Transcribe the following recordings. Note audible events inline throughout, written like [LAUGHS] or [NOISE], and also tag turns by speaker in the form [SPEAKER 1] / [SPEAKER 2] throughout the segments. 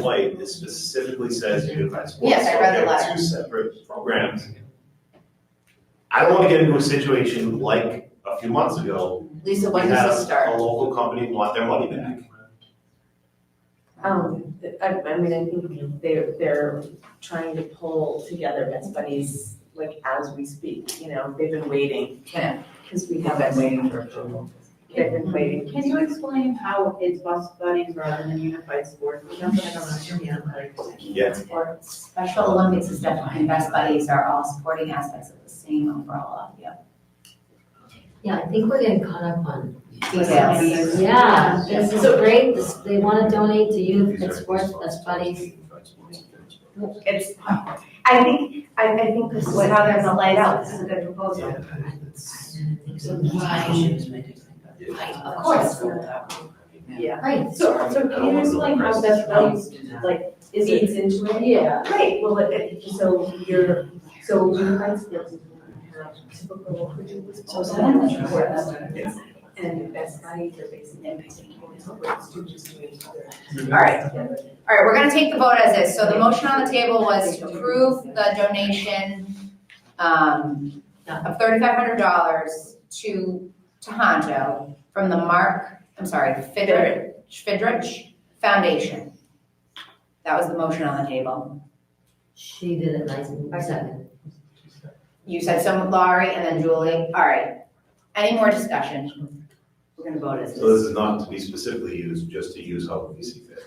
[SPEAKER 1] flight, it specifically says unified sports.
[SPEAKER 2] Yes, I
[SPEAKER 1] so
[SPEAKER 2] read the
[SPEAKER 1] there are
[SPEAKER 2] letter.
[SPEAKER 1] Two separate programs. I don't want to get into a situation like a few months ago.
[SPEAKER 2] Lisa, when does this
[SPEAKER 1] We had
[SPEAKER 2] start?
[SPEAKER 1] a local company want their money back.
[SPEAKER 3] Um, I, I mean, I think they're, they're trying to pull together best buddies, like, as we speak, you know, they've been waiting.
[SPEAKER 2] Yeah.
[SPEAKER 3] Cause we haven't waited for approval. They've been waiting.
[SPEAKER 4] Can you explain how it's bus buddies rather than unified sports? That's what I don't understand.
[SPEAKER 1] Yeah.
[SPEAKER 5] sports, Special Olympics is definitely, best buddies are all sporting aspects of the same overall, yeah.
[SPEAKER 6] Yeah, I think we're getting caught up on
[SPEAKER 5] Details.
[SPEAKER 6] details. Yeah, this is
[SPEAKER 3] So-
[SPEAKER 6] great, this, they wanna donate to youth
[SPEAKER 1] These are
[SPEAKER 6] and sports, that's funny.
[SPEAKER 1] Unified sports, unified sports.
[SPEAKER 2] It's, I think, I, I think this is how they're gonna lay it out, this is a good proposal.
[SPEAKER 1] Yeah, it's- yeah.
[SPEAKER 5] Of course,
[SPEAKER 3] Yeah.
[SPEAKER 6] Right,
[SPEAKER 4] So, so can you explain how best buddies, like, is it?
[SPEAKER 3] Feeds into it? Yeah.
[SPEAKER 4] Right, uh,
[SPEAKER 3] Well, it- it, so you're, so unified sports is gonna have typical, which is
[SPEAKER 5] So is that in the
[SPEAKER 3] sports.
[SPEAKER 5] report?
[SPEAKER 3] And best buddies are basically incorporating students to each other.
[SPEAKER 5] All right, all
[SPEAKER 2] All right, we're gonna take the vote as is, so the motion on the table was to approve the donation, um, of thirty-five hundred dollars to Tohoto from the Mark, I'm sorry, Fidrich, Fidrich Foundation. That was the motion on the table.
[SPEAKER 6] she did it nice, I second.
[SPEAKER 2] You said some, Laurie, and then Julie, all right. Any more discussion? We're gonna vote as
[SPEAKER 1] So
[SPEAKER 2] is.
[SPEAKER 1] this is not to be specifically used, just to use how we see fit.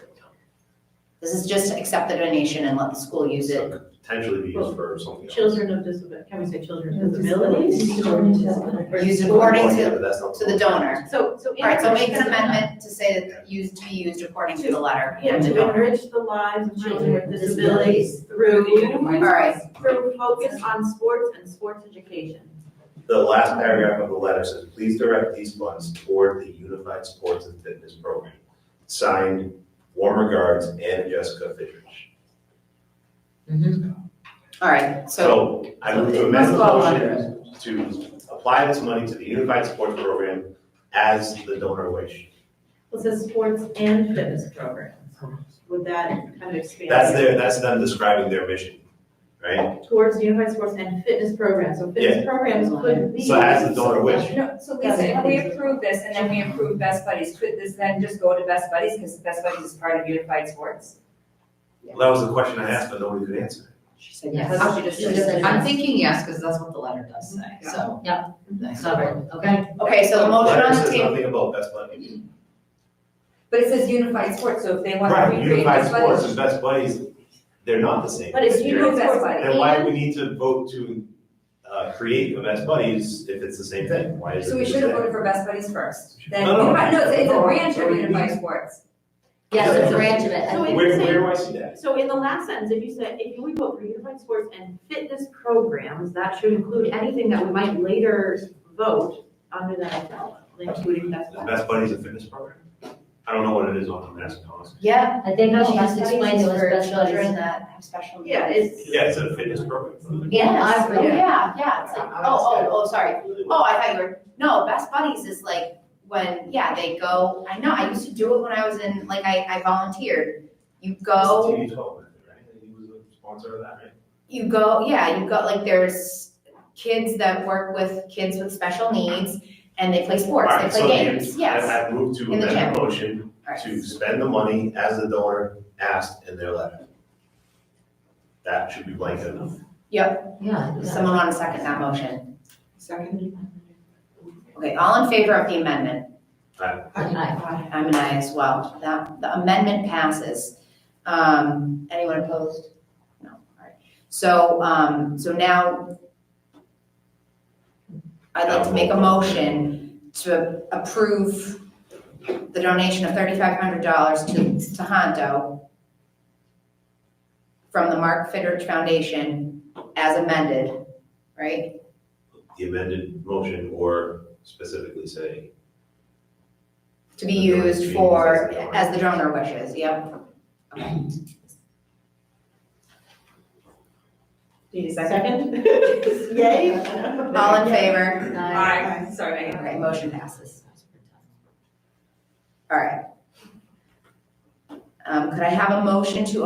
[SPEAKER 2] This is just to accept the donation and let the school use it.
[SPEAKER 1] So could Potentially be used for something else.
[SPEAKER 4] Children of disability, can we say children of disabilities?
[SPEAKER 2] Used according
[SPEAKER 1] Yeah,
[SPEAKER 2] to,
[SPEAKER 1] but that's not-
[SPEAKER 2] to the donor.
[SPEAKER 4] So, so.
[SPEAKER 2] All right, so make an amendment to say that used, to be used according to the letter
[SPEAKER 4] Yeah,
[SPEAKER 2] from the
[SPEAKER 4] to
[SPEAKER 2] donor.
[SPEAKER 4] enrich the lives of children with disabilities through.
[SPEAKER 2] All right,
[SPEAKER 4] Through focus on sports and sports education.
[SPEAKER 1] The last paragraph of the letter says, please direct these funds toward the Unified Sports and Fitness Program. Signed, warm regards, and Jessica Fidrich.
[SPEAKER 2] all right, so,
[SPEAKER 1] So I move to amend the motion to apply this money to the Unified Sports Program as the donor wish.
[SPEAKER 4] It says sports and fitness programs. Would that kind of expand?
[SPEAKER 1] That's their, that's them describing their mission, right?
[SPEAKER 4] Towards unified sports and fitness programs, so fitness programs could be.
[SPEAKER 1] So as the donor wish.
[SPEAKER 7] No, so Lisa, if we approve this and then we approve Best Buddies, could this then just go to Best Buddies, because Best Buddies is part of Unified Sports?
[SPEAKER 1] Well, That was the question I asked, but nobody could answer.
[SPEAKER 2] she said
[SPEAKER 6] Yes.
[SPEAKER 2] yes. She just
[SPEAKER 6] She
[SPEAKER 2] said
[SPEAKER 6] just said
[SPEAKER 2] yes.
[SPEAKER 7] I'm thinking yes, because that's what the letter does say, so.
[SPEAKER 6] Covered, okay?
[SPEAKER 2] Okay, so the motion
[SPEAKER 1] Letter
[SPEAKER 2] on the
[SPEAKER 1] says
[SPEAKER 2] table,
[SPEAKER 1] nothing about best money.
[SPEAKER 7] But it says Unified Sports, so if they want to
[SPEAKER 1] Right,
[SPEAKER 7] recreate
[SPEAKER 1] Unified
[SPEAKER 7] Best
[SPEAKER 1] Sports
[SPEAKER 7] Buddies.
[SPEAKER 1] and best buddies, they're not the same.
[SPEAKER 7] But it's Unified Sports
[SPEAKER 1] Then why do we need to vote to uh, create the best buddies if it's the same thing? Why is it?
[SPEAKER 7] So we
[SPEAKER 1] the
[SPEAKER 7] should have
[SPEAKER 1] same?
[SPEAKER 7] voted for Best Buddies first, then,
[SPEAKER 1] No, no.
[SPEAKER 7] Unified- no, it's it's a branch
[SPEAKER 1] Oh,
[SPEAKER 7] of
[SPEAKER 1] we-
[SPEAKER 7] Unified Sports.
[SPEAKER 6] Yes, it's a branch of it.
[SPEAKER 4] So
[SPEAKER 6] I-
[SPEAKER 4] it-
[SPEAKER 1] Where, where do I see that?
[SPEAKER 4] So in the last sentence, if you said, if we vote for unified sports and fitness programs, that should include anything that we might later vote under that umbrella, including best
[SPEAKER 1] The
[SPEAKER 4] practice.
[SPEAKER 1] best buddies a fitness program? I don't know what it is on the mask, honestly.
[SPEAKER 2] yeah.
[SPEAKER 6] I think
[SPEAKER 2] No,
[SPEAKER 6] she
[SPEAKER 2] Best
[SPEAKER 6] just
[SPEAKER 2] Buddies
[SPEAKER 6] explained
[SPEAKER 2] is
[SPEAKER 6] it was
[SPEAKER 2] for
[SPEAKER 6] special
[SPEAKER 2] Children
[SPEAKER 6] ed.
[SPEAKER 2] that have special needs.
[SPEAKER 4] Yeah, it's.
[SPEAKER 1] Yeah, it's a fitness program.
[SPEAKER 6] Yeah,
[SPEAKER 2] Oh,
[SPEAKER 6] I agree.
[SPEAKER 2] yeah, yeah, it's like, oh, oh, oh, sorry. Oh, I thought you were, no, Best Buddies is like when, yeah, they go, I know, I used to do it when I was in, like, I, I volunteered. You go.
[SPEAKER 1] It's TV twelve, right? He was a sponsor of that, right?
[SPEAKER 2] you go, yeah, you go, like, there's kids that work with kids with special needs, and they play sports, they
[SPEAKER 1] Alright, so
[SPEAKER 2] play games,
[SPEAKER 1] the-
[SPEAKER 2] yes.
[SPEAKER 1] I I moved to
[SPEAKER 2] In the
[SPEAKER 1] amend the motion
[SPEAKER 2] Alright.
[SPEAKER 1] to spend the money as the donor asked in their letter. That should be blanket enough.
[SPEAKER 6] Yeah,
[SPEAKER 2] Does
[SPEAKER 6] yeah.
[SPEAKER 2] Someone want to second that motion?
[SPEAKER 7] Second.
[SPEAKER 2] Okay, all in favor of the amendment?
[SPEAKER 6] Aye.
[SPEAKER 2] I'm an aye as well. That, the amendment passes. Um, anyone opposed? No, all right. So, um, so now I'd like to make a motion to approve the donation of thirty-five hundred dollars to, to Hondo from the Mark Fidrich Foundation as amended, right?
[SPEAKER 1] The amended motion or specifically say
[SPEAKER 2] To be
[SPEAKER 1] The donor
[SPEAKER 2] used
[SPEAKER 1] fees
[SPEAKER 2] for,
[SPEAKER 1] as the donor.
[SPEAKER 2] as the donor wishes, yep. Okay.
[SPEAKER 4] Second? [LAUGHS] Yay?
[SPEAKER 2] All in favor?
[SPEAKER 7] Aye, sorry.
[SPEAKER 2] Okay, motion passes. All right. Um, could I have a motion to